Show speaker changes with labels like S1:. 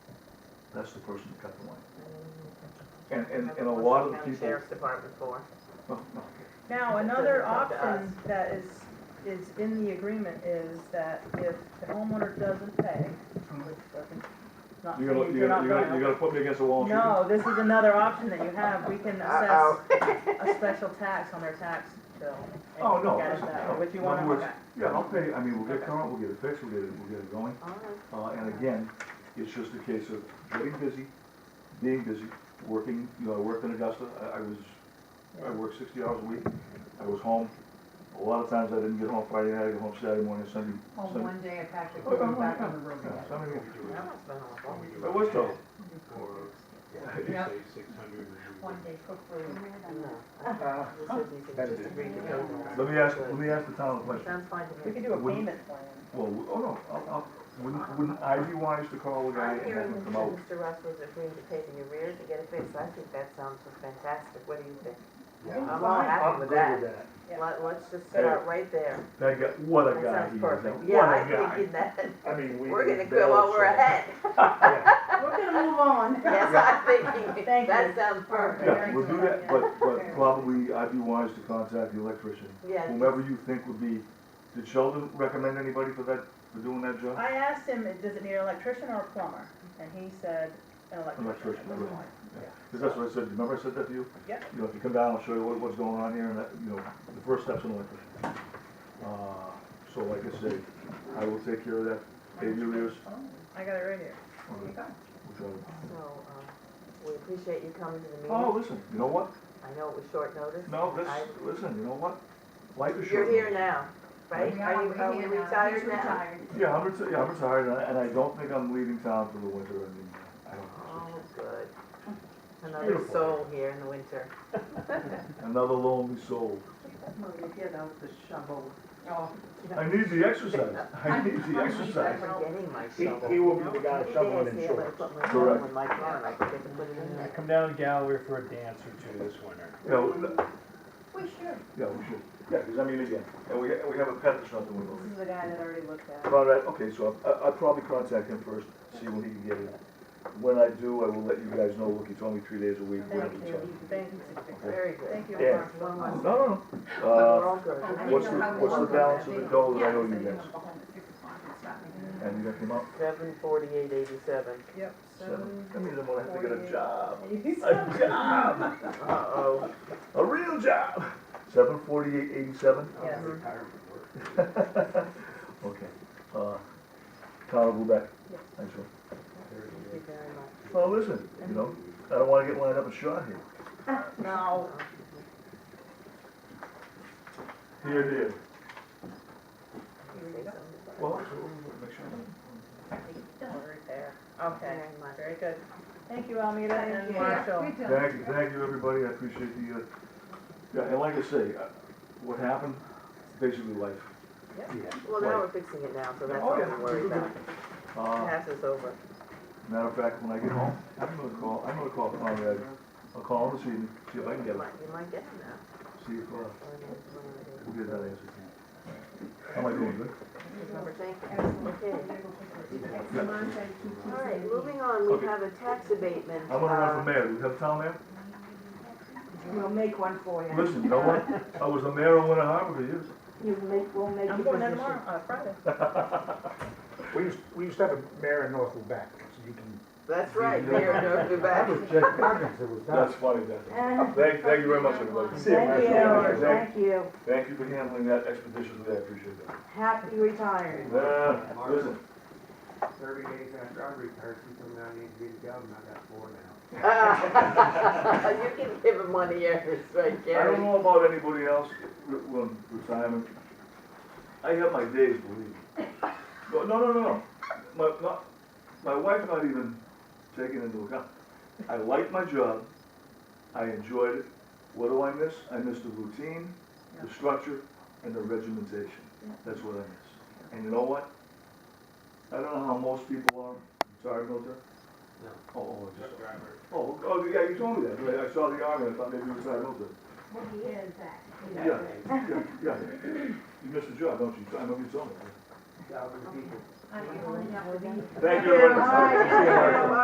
S1: That's the person that cut the line.
S2: And, and, and a lot of the
S3: County
S2: people,
S3: Sheriff's Department for.
S2: oh, no,
S4: Now,
S3: It
S4: another
S3: doesn't come to
S4: option that is, is in the agreement is that if the homeowner doesn't pay, which doesn't, not
S2: you're gonna,
S4: saying
S2: you're gonna,
S4: they're
S2: you're
S4: not
S2: gonna, you're
S4: liable.
S2: gonna put me against the wall and shoot me?
S4: No, this is another option that you have, we can assess
S3: Uh-oh.
S4: a special tax on their tax bill. and
S1: Oh, no,
S4: look at it
S1: that's-
S4: that
S1: no,
S4: way, Which you
S1: in other
S4: wanna look
S1: words-
S4: at.
S1: Yeah, I'll pay, I mean, we'll get
S4: Okay.
S1: current, we'll get it fixed, we'll get it, we'll get it going.
S3: All right.
S1: Uh, and again, it's just a case of getting busy, being busy, working, you know, I worked in Augusta, I, I was, I worked sixty hours a week. I was home, a lot of times I didn't get home Friday night, I got home Saturday morning, Sunday,
S4: Oh,
S5: Home
S1: Sunday.
S5: one day and packed it,
S1: Oh,
S5: going
S1: oh,
S5: back
S1: oh.
S5: on the road
S1: Yeah,
S5: again.
S1: Sunday.
S3: That must've been
S1: I
S3: awful.
S1: was told,
S5: Yeah.
S6: six hundred.
S5: One day cook food.
S3: No. This isn't easy. Just agree to go with
S1: let me ask, let me ask the town a
S3: it.
S1: question.
S3: Sounds fine to
S4: We
S3: me.
S4: could do a
S1: Wouldn't-
S4: payment plan.
S1: Well, we- oh no, I'll, I'll, wouldn't, wouldn't I be wise to call the guy
S3: I'm
S1: and have him
S3: hearing that
S1: come out?
S3: Mr. Russ was agreeing to pay the arrears to get it fixed. I think that sounds just fantastic. What do you think? I'm all happy with that.
S4: Yeah.
S3: Let, let's just start right there.
S1: That guy, what a
S3: That
S1: guy he
S3: sounds
S1: is,
S3: perfect. Yeah,
S1: what a
S3: I'm
S1: guy.
S3: thinking that.
S6: I mean, we.
S3: We're gonna go while we're ahead.
S5: We're gonna move on.
S3: Yes, I'm thinking,
S4: Thank
S3: that
S4: you.
S3: sounds perfect.
S1: Yeah, we'll do that, but, but probably I'd be wise to contact the electrician,
S3: Yeah.
S1: whomever you think would be, did Sheldon recommend anybody for that, for doing that job?
S4: I asked him, does it need an electrician or a plumber? And he said, an electrician.
S1: Electrician,
S4: It was
S1: really.
S4: mine.
S1: Because that's what I said, remember I said that to you?
S4: Yeah.
S1: You know, if you come down, I'll show you what, what's going on here, and that, you know, the first step's an electrician. Uh, so like I said, I will take care of that, pay the arrears.
S4: I got it right here.
S1: on the- which
S3: So,
S1: I-
S3: um, we appreciate you coming to the
S1: Oh,
S3: meeting.
S1: listen, you know what?
S3: I know it was short notice.
S1: No, this,
S3: I-
S1: listen, you know what? Life is short.
S3: You're here now, right?
S5: Yeah,
S3: Are you,
S5: we're
S3: are
S5: here
S3: we
S5: now.
S3: retired
S5: He's
S3: now?
S5: retired.
S1: Yeah, I'm retired, yeah, I'm retired, and I- and I don't think I'm leaving town for the winter, I mean, I don't.
S3: Oh, good. Another
S1: Beautiful.
S3: soul here in the winter.
S1: Another lonely soul.
S5: Maria, get out the shovel.
S1: I need the exercise. I need the
S3: I'm
S1: exercise.
S3: forgetting my
S6: He,
S3: shovel.
S6: he will be the guy
S3: Every day
S6: shoveling
S3: I
S6: in
S3: see it,
S6: shorts.
S3: I put my
S1: Correct.
S3: shovel in my car, I forget to put it in there.
S6: Come down to Galloway for a dance or two this winter.
S1: You know,
S5: We should.
S1: yeah, we should, yeah, because I mean, again, and we, we have a pet that's not doing
S4: This is the guy that already looked at it.
S1: All right, okay, so I, I'll probably contact him first, see when he can get it. When I do, I will let you guys know, look, he told me three days a week, we're
S4: Thank
S1: gonna be
S4: you,
S1: talking.
S4: thank you.
S3: Very good.
S4: Thank you.
S1: Yeah.
S4: Mark.
S3: One
S1: No,
S3: last, but
S1: no, no.
S3: we're
S1: Uh,
S3: all good.
S5: Oh, I
S1: what's
S5: know
S1: the,
S5: how we
S1: what's the
S5: work on
S1: balance
S5: that
S1: of the
S5: thing.
S1: dough that I
S5: Yeah,
S1: owe
S5: so
S1: you
S5: don't
S1: guys?
S5: go home at six o'clock and stop me.
S1: And you got him up?
S3: Seven forty-eight eighty-seven.
S4: Yep,
S1: Seven.
S4: seven.
S1: That means I'm gonna have to get a
S4: forty-eight,
S1: job. A
S4: eighty-seven.
S1: job,
S3: Uh-oh.
S1: a real job. Seven forty-eight eighty-seven?
S4: Yes.
S6: Retirement work.
S1: Okay, uh, Tyler Lubeck,
S4: Yes.
S1: thanks for,
S3: Thank you very much.
S1: well, listen, you know, I don't wanna get lined up and shot here.
S4: No.
S3: Uh-huh.
S1: Here, here.
S3: Say something.
S1: Well, make sure.
S4: Don't worry there.
S3: Thank
S4: Okay,
S3: you very much.
S4: very good. Thank you, Almeda and
S5: Yeah,
S4: Marshall.
S5: we done.
S1: Thank you, thank you, everybody, I appreciate the, uh, yeah, and like I say, uh, what happened, basically life.
S3: Well, now we're fixing it now, so that's all
S1: Oh, yeah.
S3: I'm worried about.
S1: Uh,
S3: Pass is over.
S1: matter of fact, when I get home, I'm gonna call, I'm gonna call Conrad, I'll call him this evening, see if I can get
S3: You
S1: him,
S3: might, you might get him now.
S1: see if, uh,
S3: Or maybe it's one of the-
S1: we'll get that answer. How am I doing, good?
S3: Number thank you.
S5: Absolutely.
S3: Okay.
S5: Next month, I keep
S3: All right,
S5: teasing
S3: moving on, we
S1: Okay.
S3: have a tax abatement.
S1: I'm gonna run
S3: uh,
S1: for mayor, do we have a town mayor?
S5: you. We'll make one for you.
S1: Listen, you know what, I was the mayor of Winter Harbor for years.
S5: You make, we'll make
S4: I'm
S5: you
S4: going there
S5: position.
S4: tomorrow, uh, Friday.
S6: We used, we used to have a mayor in North Lubec, so you can.
S3: That's right, Mayor
S6: That
S3: Novak.
S6: was Jack Perkins that was
S1: That's
S6: that.
S1: funny, that.
S5: Uh,
S1: Thank, thank you very much, everybody.
S6: See you,
S5: Thank
S6: Marshall.
S5: you, thank you.
S1: Thank you for handling that expeditiously, I appreciate that.
S5: Happy retired.
S1: Yeah, listen,
S7: thirty days after I retired, she told me I needed to be the governor, I got four now.
S3: You can give him one of yours, right,
S1: I don't
S3: Gary?
S1: know about anybody else, re- when retirement, I have my days, believe me. No, no, no, no, my, not, my wife not even taken into account. I like my job, I enjoyed it, what do I miss? I miss the routine, the structure, and the regimentation, that's what I miss. And you know what? I don't know how most people are, retired military.
S7: No.
S1: Oh, Oh, I just, oh, oh, yeah, you told me that, but I I saw the army, I thought maybe you were retired military.
S5: Well, he is that.
S1: Yeah, yeah, yeah. You missed the job, don't you? I know you told me.
S7: Thousand people.
S5: I'm only up with him.
S1: Thank you very much.
S5: All right.
S1: See you, Mark.